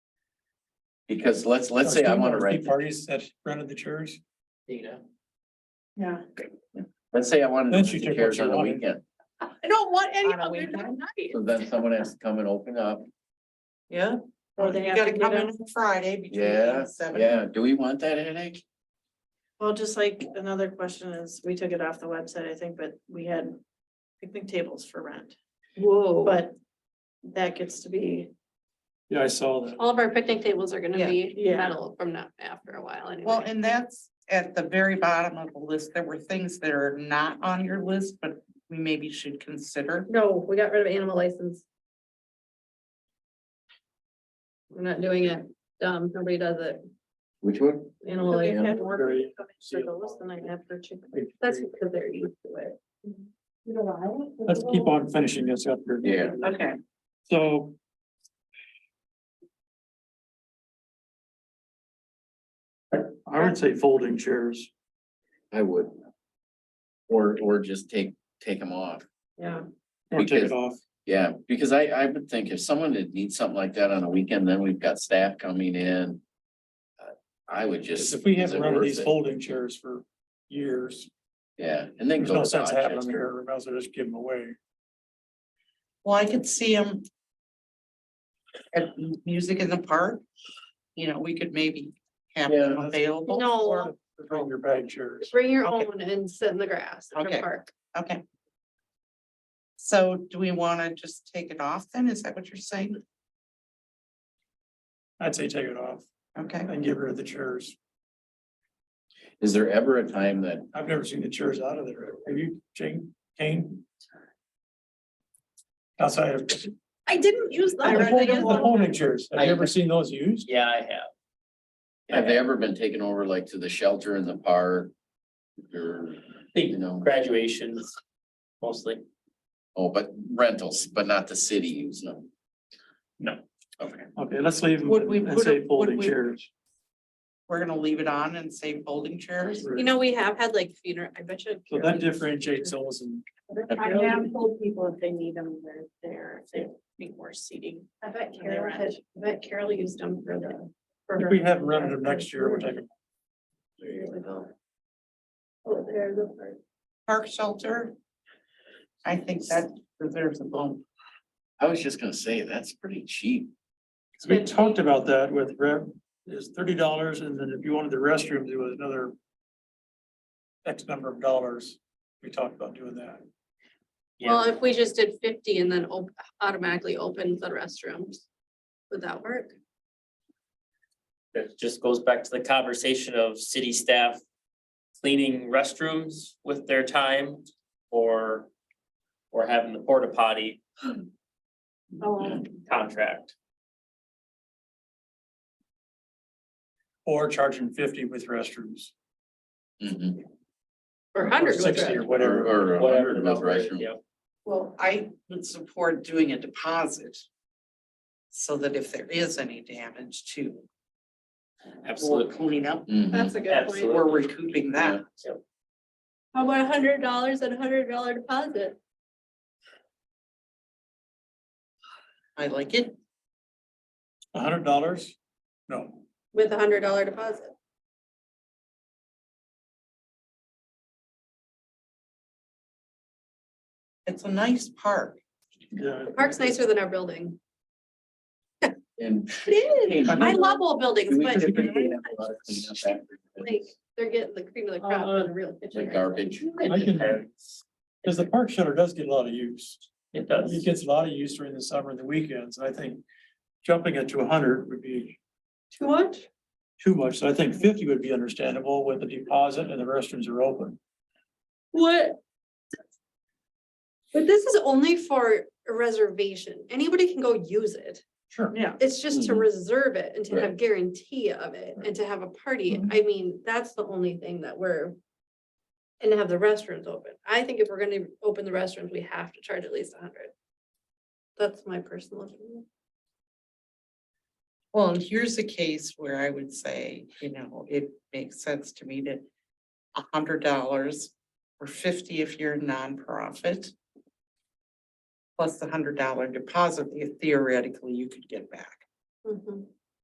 Because let's, let's say I wanna rent, Parties that rented the chairs. Dana. Yeah. let's say I wanted to Then she rent took the what chairs she on a wanted. weekend, I don't want any On a of them that weekend? night. so then someone has to come and open up. Yeah. Or they You have to gotta get come in them, on Friday between eight Yeah, and seven. yeah, do we want that headache? well, just like another question is, we took it off the website, I think, but we had picnic tables for rent, Whoa. But but that gets to be, Yeah, I saw that. All of our picnic tables are gonna Yeah. be Yeah. metal from now, after a while anyway. Well, and that's at the very bottom of the list. There were things that are not on your list, but we maybe should consider. No, we got rid of animal license. We're not doing it. Um, nobody does it. Which one? Animal we license. had more Very- coming for those than I had for chicken. That's because they're used to it. Let's keep on finishing this up here. Yeah. Okay, So. I would say folding chairs. I would. Or, or just take, take them off. yeah, Or take Because- it off. Yeah, because I, I would think if someone did need something like that on a weekend, then we've got staff coming in. Uh, I would just. If we is have it remember worth these it? folding chairs for years, Yeah, and then there's go no to sense having them Rochester. here, we might as well just give them away. Well, I could see them. At m- music in the park, you know, we could maybe have Yeah, them that's- available. No. or- Bring your bag chairs. Bring your Okay. own and sit in the grass at the Okay. park. Okay. So do we want to just take it off then? Is that what you're saying? I'd say take it off Okay, and get rid of the chairs. Is there ever a time that, I've never seen the chairs out of there. Have you, Jane, Kane? Outside of the I didn't use that. folding- the folding chairs. Have I- you ever seen those used? Yeah, I have. have they ever been taken over like to the shelter in the park? Or, you Think know, graduations mostly. oh, but rentals, but not the city using them? No. Okay, Okay, let's leave them Would we and put a- say would folding we- chairs. we're gonna leave it on and say folding chairs? You know, we have had like funeral, I bet you. So that differentiates those and I have told people if they need them, they're there, if they need more seating. I bet Carol had- I bet Carol used them for the. if we have rented them next year, we're taking, Oh, there's a part. Park shelter? I think that deserves a bump. I was just gonna say, that's pretty cheap. we talked about that with rev, is thirty dollars and then if you wanted the restrooms, it was another X number of dollars. We talked about doing that. Well, if we just did fifty and then op- automatically opened the restrooms, would that work? It just goes back to the conversation of city staff cleaning restrooms with their time or, or having the porta potty Oh, contract. Or charging fifty with restrooms. Mhm. or or hundred. Sixty or Or, whatever. or a whatever hundred the of those number is, restrooms. yeah. Well, I would support doing a deposit. So that if there is any damage to, or Absolutely. cleanup, Mhm. That's a good point. Absolutely. or recouping that. How about a hundred dollars and a hundred dollar deposit? I like it. A hundred dollars? No. With a hundred dollar deposit. It's a nice park. Yeah. The park's nicer than our building. And. It Hey, I love old buildings, do we- but do we have a lot of cleanup after like, this? they're getting the cream of the crop in a real kitchen. Like garbage. I can, because the park shutter does get a lot of use. It It does. gets a lot of use during the summer and the weekends. I think jumping it to hundred would be Too much? too much. So I think fifty would be understandable with the deposit and the restrooms are open. What? But this is only for a reservation. Anybody can go use it. Sure. Yeah. It's just to Mhm. reserve it and to have Right. guarantee of it and to have a party. Mhm. I mean, that's the only thing that we're. And to have the restrooms open. I think if we're gonna open the restrooms, we have to charge at least a hundred. That's my personal opinion. Well, and here's a case where I would say, you know, it makes sense to me to a hundred dollars or fifty if you're a nonprofit. Plus the hundred dollar deposit that theoretically you could get back. Mhm.